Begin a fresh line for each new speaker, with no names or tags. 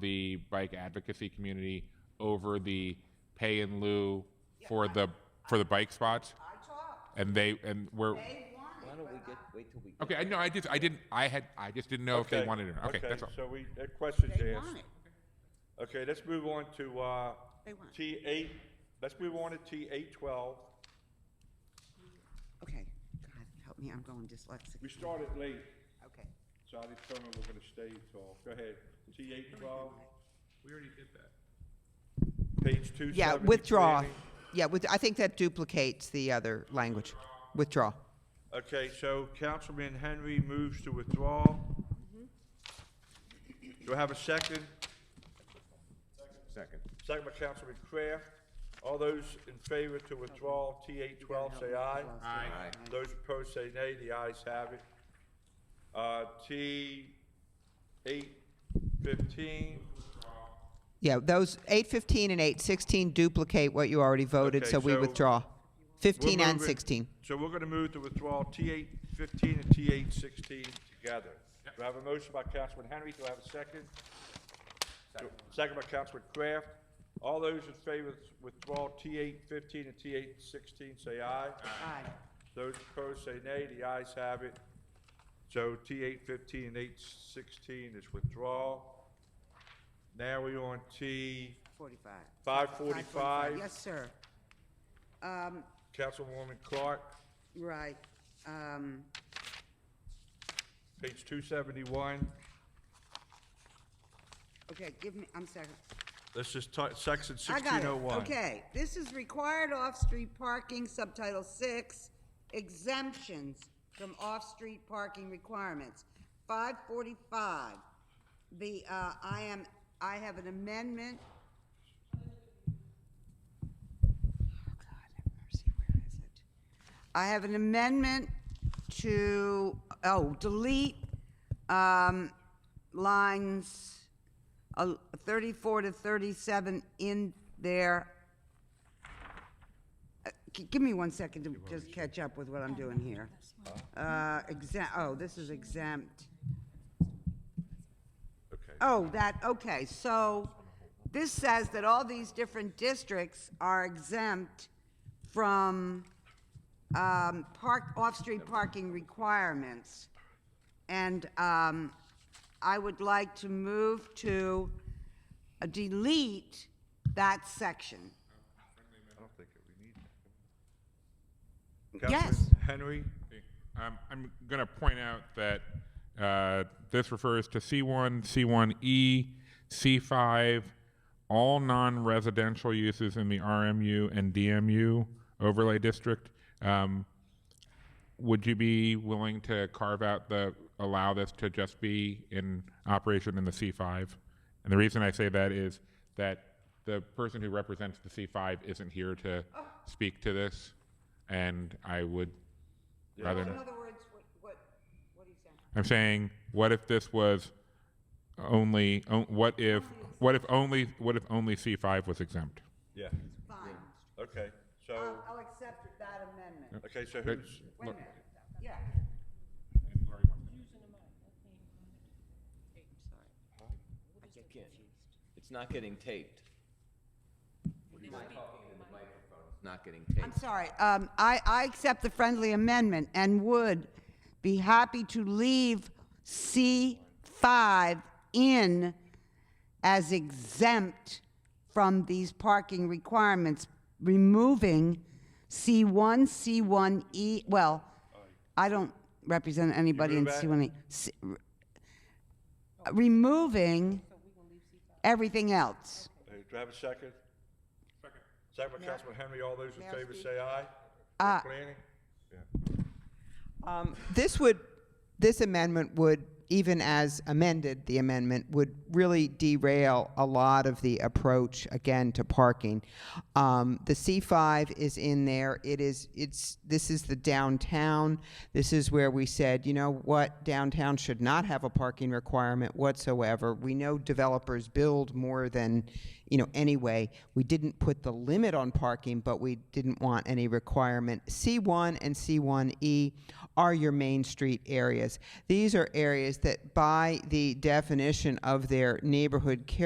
the bike advocacy community over the pay in lieu for the, for the bike spots?
I talked,
And they, and we're,
they want
Why
it,
don't we
but
get, wait till we get
okay, I know, I just, I didn't, I had, I just didn't know if they wanted it or not. Okay, that's all.
So we, that question's
I- they want
asked.
it.
Okay, let's move on to, uh,
They want it.
T eight, let's move on to T eight twelve.
Okay, God, help me, I'm going dyslexic.
We started late,
Okay.
so I determined we're gonna stay till, go ahead, T eight twelve. We already did that. Page two
Yeah, withdraw. Yeah, with, I think that duplicates the other language. Withdraw.
Okay, so Councilman Henry moves to withdraw.
Mm-hmm.
Do I have a second?
Second.
Second by Councilman Kraft. All those in favor to withdraw T eight twelve, say aye.
Aye.
Those opposed say nay, the ayes have it. Uh, T eight fifteen,
Yeah, those eight fifteen and eight sixteen duplicate what you already voted,
Okay,
so we
so
withdraw. Fifteen
We're
and
moving-
sixteen.
So we're gonna move to withdraw T eight fifteen and T eight sixteen together. Do I have a motion by Councilman Henry? Do I have a second? Do- Second by Councilman Kraft. All those in favor of withdrawal T eight fifteen and T eight sixteen, say aye. Those opposed say nay. The ayes have it. So T eight fifteen and eight sixteen is withdrawal. Now we on T
Forty-five.
five forty-five.
Yes, sir. Um,
Councilwoman Clark,
right, um,
page two seventy-one.
okay, give me, I'm sorry.
Let's just talk, section
I got
sixteen
it.
oh one.
Okay, this is required off-street parking, subtitle six, exemptions from off-street parking requirements. Five forty-five, the, uh, I am, I have an amendment. Oh, God, have mercy, where is it? I have an amendment to, oh, delete, um, lines, uh, 34 to 37 in there. Uh, g- Give me one second to just catch up with what I'm doing here. Uh, exempt, oh, this is exempt.
Okay.
Oh, that, okay, so this says that all these different districts are exempt from um, park, off-street parking requirements. And um, I would like to move to delete that section.
Councilman
Yes.
Henry,
Um, I'm going to point out that uh, this refers to C1, C1E, C5, E, all non residential uses in the RMU and DMU overlay district. Um, would you be willing to carve out the allow this to just be in operation in the C5? And the reason I say that is that the person who represents the C5 isn't here to speak to this, and I would rather.
In other words, what, what, what are you saying?
I'm saying, what if this was only? o- What if? What if only? What if only C5 was exempt?
yeah,
Fine,
okay, so,
I'll, I'll accept that amendment.
okay, so who's,
Wait a minute, yeah.
It's not getting taped. It's not getting taped.
I'm sorry, um, I, I accept the friendly amendment and would be happy to leave C five in as exempt from these parking requirements, removing C one, C one E, well, I don't represent anybody in
move
C one E. C- r- Removing everything else.
uh, do I have a second? Second by Councilman Henry, all those in favor say aye.
Aye.
For Planning?
Um, This would, this amendment would, even as amended, the amendment would really derail a lot of the approach, again, to parking. Um, The C5 is in there, it is, it's, this is the downtown, this is where we said, you know what, downtown should not have a parking requirement whatsoever. We know developers build more than, you know, anyway. We didn't put the limit on parking, but we didn't want any requirement. C1 and C1E are your main street areas. These are areas that, by the definition of their neighborhood character,